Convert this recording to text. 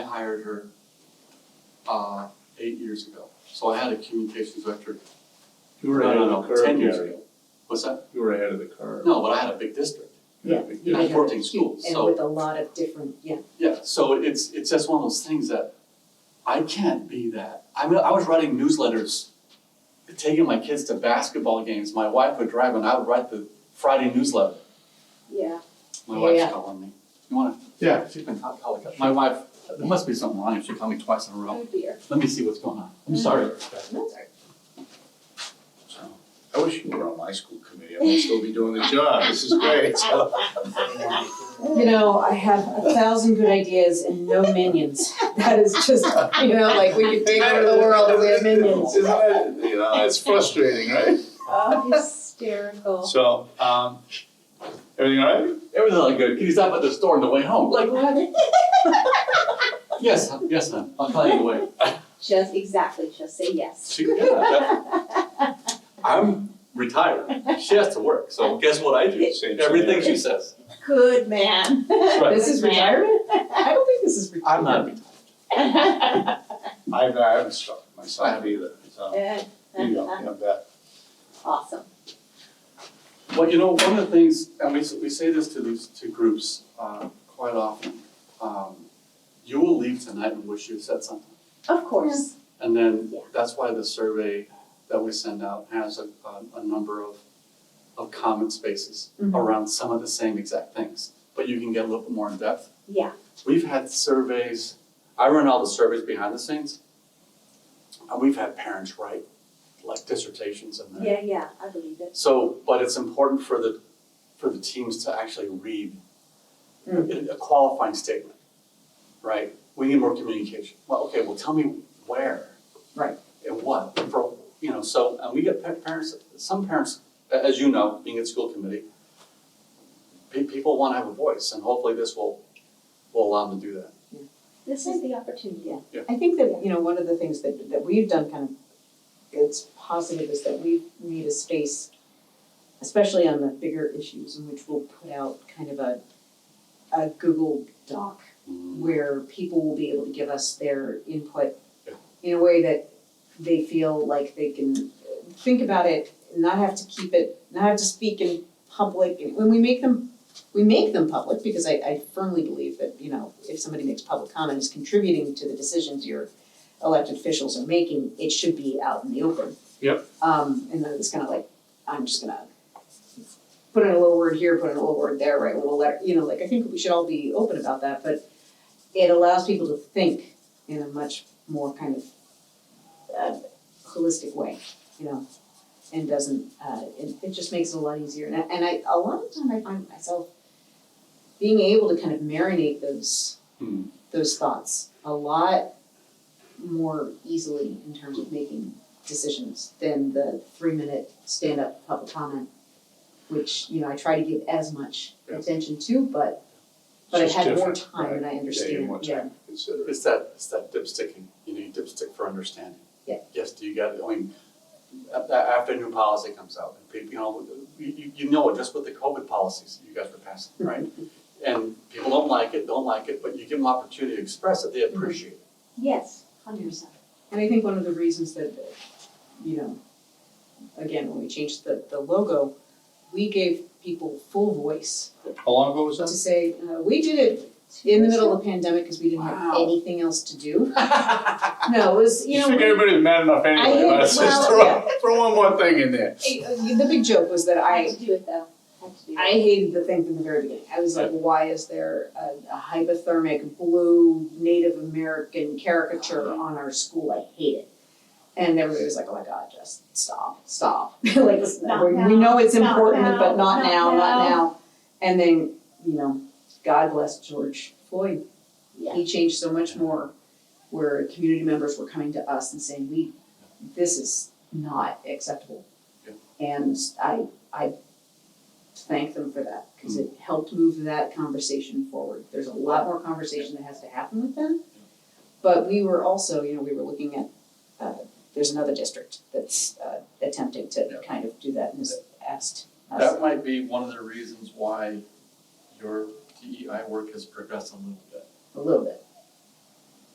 hired her uh eight years ago. So I had a communications director, You no, were ahead no, of the no, ten curve, years Gary. ago. What's that? You were ahead of the curve. No, but I had a big district. Yeah. Yeah, I I have worked in two, schools, so- And with a lot of different, yeah, Yeah, so it's it's just one of those things that I can't be that. I mean, I was writing newsletters, taking my kids to basketball games. My wife would drive, and I would write the Friday newsletter. yeah. My wife's Yeah. calling me. You wanna? Yeah. She's been calling. My wife. There must be something wrong. if She called me twice in a Oh, row. dear. Let me see what's going on. Mm. I'm sorry. That's all right. So, I wish you were on my school committee, I would still be doing the job, this is great, so. You know, I have a thousand good ideas and no minions. That is just, you know, like we could take over the world if we had minions. Isn't that- you know, it's frustrating, right? Oh, hysterical. So, um, everything all right? Everything's all good. Can you stop at the store on the way home? Like what? yes, hon. yes, ma'am. I'll call you on the way. Just exactly, just say yes. She, yeah, that- I'm retired. She has to work. So guess what I do? Same Everything scenario. she says. Good man. right. This is retirement? I don't think this is I'm retirement. not retired. I haven't, I haven't struck myself either, so, you know, you know, that, Awesome. Well, you know, one of the things, and we, s- we say this to these, to groups, uh, quite often, um, you will leave tonight and wish you had said something. Of course. And then, Yeah. that's why the survey that we send out has a, a, a number of, of comment spaces Mhm. around some of the same exact things, but you can get a little bit more in depth. Yeah. We've had surveys, I run all the surveys behind the scenes. And we've had parents write like dissertations in there. Yeah, yeah, I believe it. So, but it's important for the, for the teams to actually read a a qualifying statement, right? We need more communication. Well, okay, well, tell me where. Right. And what, for, you know, so, and we get pa- parents, some parents, a- as you know, being at school committee, pe- people wanna have a voice, and hopefully this will, will allow them to do that. This is the opportunity. I think that, you know, one of the things that that we've done kind of, it's positive is that we made a space, especially on the bigger issues, in which we'll put out kind of a a Google Doc where people will be able to give us their input Yeah. in a way that they feel like they can think about it, not have to keep it, not have to speak in public, and when we make them, we make them public, because I I firmly believe that, you know, if somebody makes public comment, it's contributing to the decisions your elected officials are making, it should be out in the open. Yep. Um, and then it's kind of like, I'm just gonna put in a little word here, put in a little word there, write a little letter, you know, like, I think we should all be open about that, but it allows people to think in a much more kind of uh, holistic way, you know, and doesn't, uh, it, it just makes it a lot easier. And I, and I, a lot of the time I find myself being able to kind of marinate those, Hmm. those thoughts a lot more easily in terms of making decisions than the three minute stand up public comment, which, you know, I try to give as much Yeah. attention to, but, but I It's just had more different, time and I yeah, understand, you yeah. have more time to consider it. It's that, it's that dipsticking, you need dipstick for understanding. Yeah. Yes, do you got, I mean, a- a- after new policy comes out, and people, you know, you, you- you know it just with the COVID policies that you guys were passing, right? And people don't like it, don't like it, but you give them opportunity to express it, they appreciate it. Yes, hundred percent. And I think one of the reasons that, you know, again, when we changed the, the logo, we gave people full voice How long ago was to that? say, uh, we did it in the middle of the pandemic because we didn't have Wow. anything else to do. No, it was, you know, think everybody was mad enough anyway, hate- let's just well, throw, yeah. throw one more thing in there. we- uh, the big joke was that I, Had to do it though, had to do it. I hated the thing from the very beginning. I was like, why is there a, a hypothermic blue Native American caricature on our school? I hate it. And everybody was like, oh my God, just stop, stop. like, listen, Not we, we now, know it's not important, now, but not not now, not now. now. And then, you know, God bless George Floyd. Yeah. He changed so much more where community members were coming to us and saying, we, this is not acceptable. Yeah. And I, I thank them for that, because it Mm-hmm. helped move that conversation forward. There's a lot more conversation that has to happen with them. But we were also, you know, we were looking at, uh, there's another district that's, uh, attempting Yeah. to kind of do that and has asked us. That might be one of the reasons why your DEI work E has progressed a little bit. A little bit,